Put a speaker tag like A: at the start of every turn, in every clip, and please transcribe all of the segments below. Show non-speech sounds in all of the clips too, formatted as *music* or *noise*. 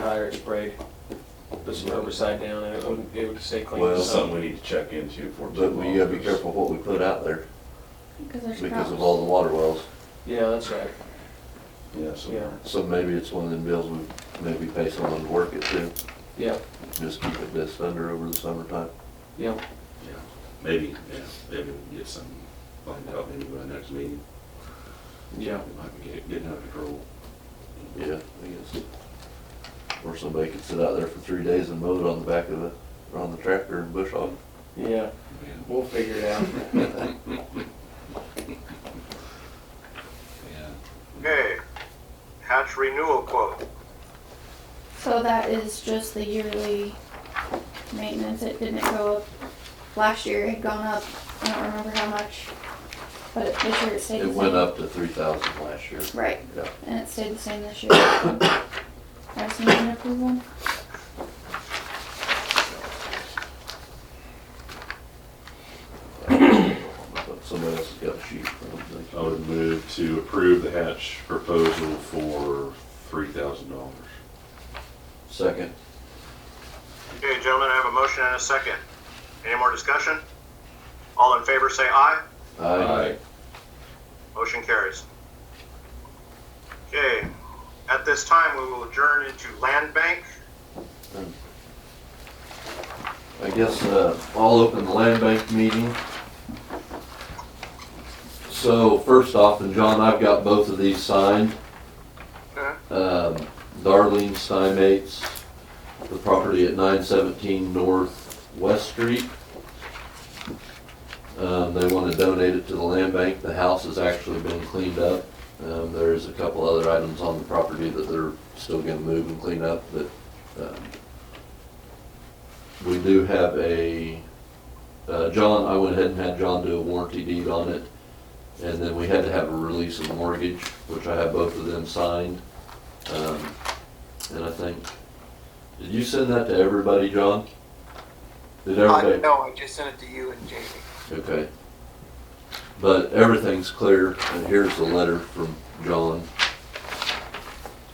A: prior it sprayed, put some herbicide down, and it would, it would stay clean.
B: Well,
A: So-
C: Something we need to check into for.
B: But we gotta be careful what we put out there
D: Because there's
B: because of
D: problems.
B: all the water wells.
A: Yeah, that's right,
C: Yeah, so.
A: Yeah.
B: So maybe it's one of them bills we maybe pay someone to work it too.
A: yeah,
B: Just keep it this under over the summertime.
A: yeah,
C: Yeah, Maybe, yeah, maybe we can get some, find out maybe by next meeting.
A: yeah.
C: It might be get- getting out of control.
B: Yeah, I guess. Or somebody could sit out there for three days and mow it on the back of the, or on the tractor and bush hog.
A: Yeah,
C: Yeah.
A: we'll figure it
C: *laughs*
A: out.
C: Yeah.
E: Okay, hatch renewal quote.
D: So that is just the yearly maintenance, it didn't go up, last year it had gone up, I don't remember how much, but it- this year it stayed the
B: It
D: same.
B: went up to three thousand last year.
D: Right,
B: Yeah. *coughs*
D: and it stayed the same this year. *coughs* I just need an approval,
B: But Somebody else has got a sheet. I don't think.
C: I would move to approve the hatch proposal for three thousand dollars.
B: Second,
E: Okay, gentlemen, I have a motion and a second. Any more discussion? All in favor say aye.
A: Uh,
B: aye.
E: Motion carries. Okay, at this time, we will adjourn into land bank.
B: I guess, uh, I'll open the land bank meeting. So first off, and John, I've got both of these signed.
E: Okay.
B: Um, Darlene Steinmates, the property at nine seventeen North West Street. Um, they wanna donate it to the land bank. The house has actually been cleaned up. Um, there's a couple other items on the property that they're still gonna move and clean up, but, um, we do have a, uh, John, I went ahead and had John do a warranty deed on it. And then we had to have a release of mortgage, which I have both of them signed. Um, and I think, did you send that to everybody, John? Did
F: Uh,
B: everybody?
F: no, I just sent it to you and Jamie.
B: Okay. But everything's clear, and here's the letter from John.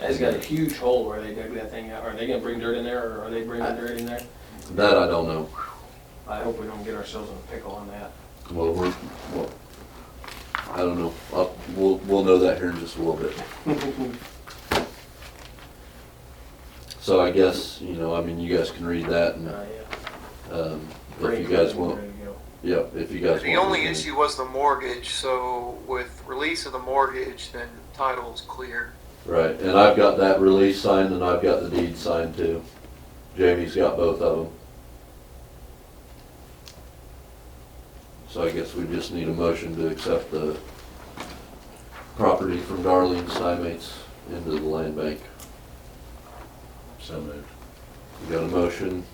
A: That's got a huge hole where they dug that thing out. Are they gonna bring dirt in there, or are they bringing dirt in there?
B: That I don't know.
A: I hope we don't get ourselves in a pickle on that.
B: Well, we're, well, I don't know. I'll, we'll, we'll know that here in just a little bit. So I guess, you know, I mean, you guys can read that and,
A: Uh, yeah.
B: um, if you guys want,
A: Ready to go.
B: yeah, if you guys want.
F: The only
B: anything.
F: issue was the mortgage, so with release of the mortgage, then title's clear.
B: Right, and I've got that release signed and I've got the deed signed too. Jamie's got both of them. So I guess we just need a motion to accept the property from Darlene Simates into the land bank.
C: So moved.
B: You got a motion?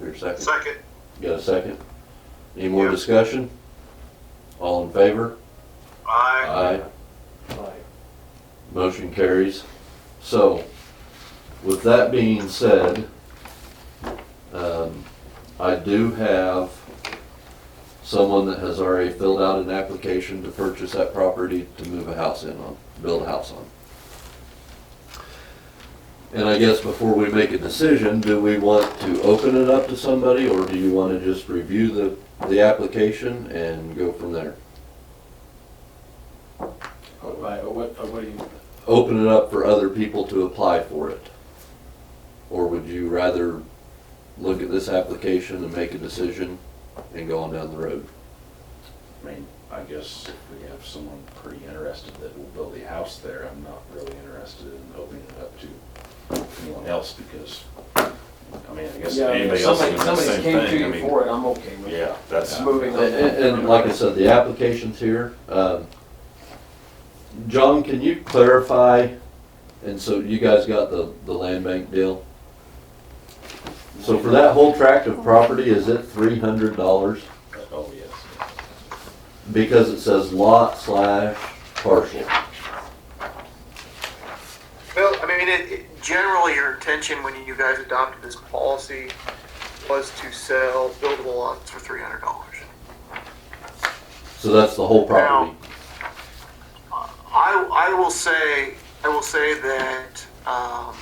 B: Or a second?
E: Second,
B: You got a second? Any more
E: Yeah.
B: discussion? All in favor?
E: aye.
B: Aye.
A: Like,
B: Motion carries. So, with that being said, um, I do have someone that has already filled out an application to purchase that property to move a house in on, build a house on. And I guess before we make a decision, do we want to open it up to somebody, or do you want to just review the, the application and go from there?
A: oh, right, oh, what, oh, what do you,
B: open it up for other people to apply for it? Or would you rather look at this application and make a decision and go on down the road?
C: I mean, I guess if we have someone pretty interested that will build a house there, I'm not really interested in opening it up to anyone else because, I mean, I guess
A: yeah, I mean, if
C: anybody else
A: somebody,
C: can do the
A: somebody
C: same
A: came to
C: thing. I
A: you
C: mean,
A: for it, I'm okay with it.
C: yeah, that's.
A: Moving
B: And,
A: on.
B: and- and like I said, the application's here. Um, John, can you clarify, and so you guys got the, the land bank deal? So for that whole tract of property, is it three hundred dollars?
C: Oh, yes.
B: Because it says lot slash parcel.
F: Well, I mean, it, it, generally, your intention when you guys adopted this policy was to sell buildable lots for three hundred dollars.
B: So that's the whole property.
F: I, I will say, I will say that, um,